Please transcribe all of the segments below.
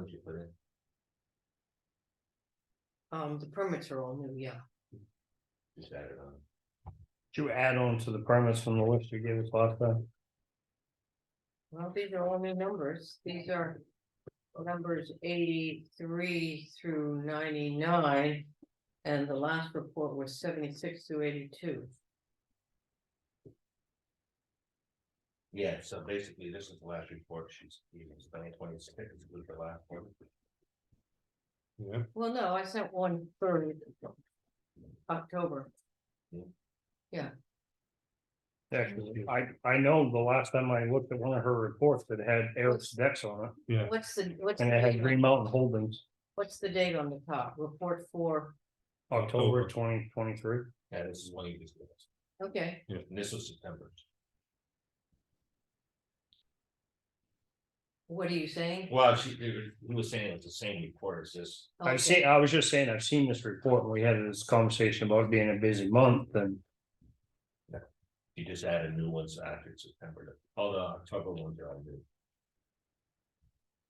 did you put in? Um, the permits are all new, yeah. Just add it on. Did you add on to the permits from the list you gave us last time? Well, these are all new numbers. These are numbers eighty-three through ninety-nine. And the last report was seventy-six through eighty-two. Yeah, so basically, this is the last report she's, it's nine twenty six, was the last one. Yeah. Well, no, I sent one for October. Actually, Mm-hmm. I, I know the last time I looked at one of her reports that had Eric's decks on it, What's the, what's the, and it had date on- Green Mountain Holdings, what's the date on the top? Report for, October October. twenty twenty-three. Yeah, this is one you just. gave us. okay, And this was September. what are you saying? Well, she, it was- he was saying it's the same report as this. I Okay. see, I was just saying, I've seen this report, and we had this conversation about it being a busy month, and You just added new ones after September, all the October ones are on there.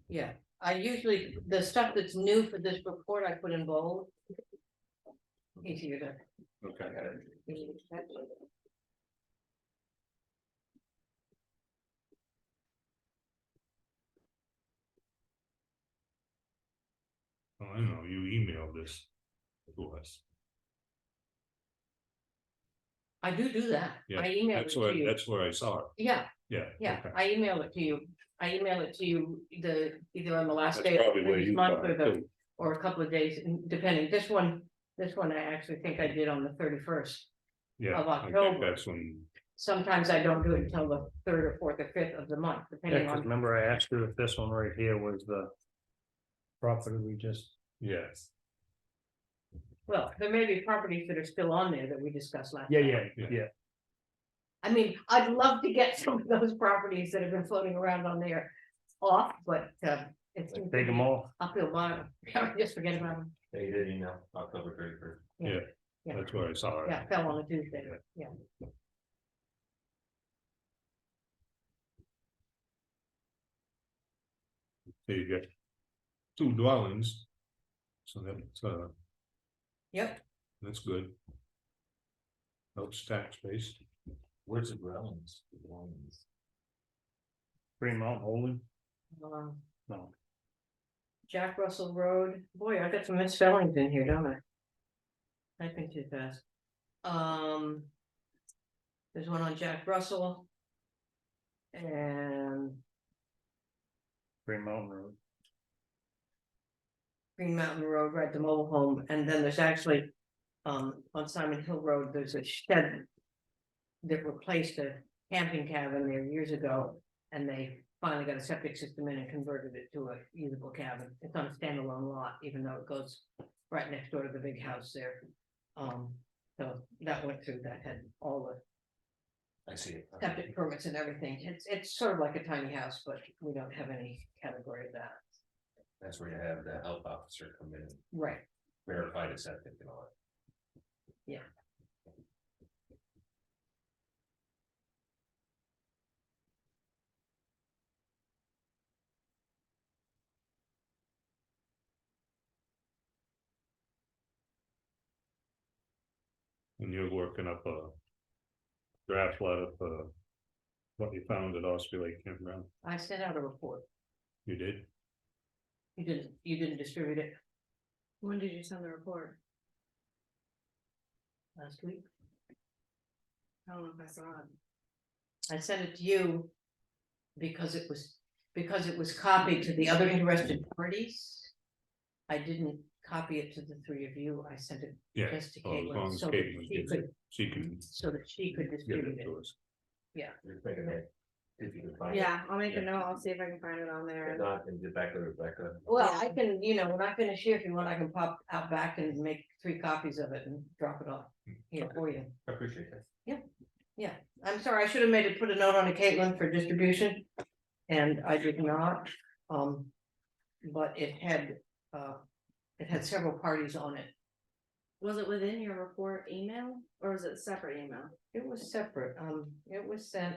Yeah, I usually, the stuff that's new for this report, I put in bold. Easier to. Okay. Oh, I know, you emailed this to us. I do do that. Yeah, I email it That's where, to you. that's where I saw it. Yeah, Yeah. yeah, okay. I email it to you. I email it to you the, either on the last That's day of probably where this you month got or it the, too. or a couple of days, depending. This one, this one I actually think I did on the thirty-first. Yeah, of I think October. that's when, Sometimes I don't do it until the third or fourth or fifth of the month, yeah, depending 'cause on, remember I asked you if this one right here was the property we just, yes, well, there may be properties that are still on there that we discussed last. yeah, time. yeah, Yeah. yeah, I mean, I'd love to get some of those properties that have been floating around on there off, but uh, it's. take them all, I feel mine, just forget about them, They did email October thirty first. yeah, that's where I saw it. yeah, it fell on a Tuesday, yeah. So you get two dwellings. So that's, uh, Yep. that's good. Helps tax base. Where's the grounds? Grounds. Green Mountain Holding, Um, no. Jack Russell Road, boy, I got some misspellings in here, don't I? I think too fast. Um. There's one on Jack Russell. And Green Mountain Road. Green Mountain Road, right, the mobile home, and then there's actually, um, on Simon Hill Road, there's a shed. That replaced a camping cabin there years ago, and they finally got a septic system in and converted it to a usable cabin. It's on a standalone lot, even though it goes right next door to the big house there. Um, so that went through, that had all the I see it. septic permits and everything. It's, it's sort of like a tiny house, but we don't have any category of that. That's where you have the health officer come in and Right, verify the septic and all And you're working up a. Draft letter for. What you found at Osprey Lake Campground, I sent out a report. you did? You didn't, you didn't distribute it When did you send the report? last week. I don't know if I saw it. I sent it to you because it was, because it was copied to the other interested parties. I didn't copy it to the three of you. I sent it Yeah, just to so as long Caitlin as so that Caitlin she gets could, it, she can so that she could give distribute it it. to us. that. If you can find it. Yeah, I'll make a Yeah. note, I'll see if I can find it on there. If not, then get back to Rebecca. Well, I can, you know, when I finish here, if you want, I can pop out back and make three copies of it and drop it off here for you. I Appreciate that. I'm sorry, I should have made it, put a note on to Caitlin for distribution, and I did not, um. But it had, uh, it had several parties on it, Was it within your report email or was it separate email? it was separate, um, it was sent.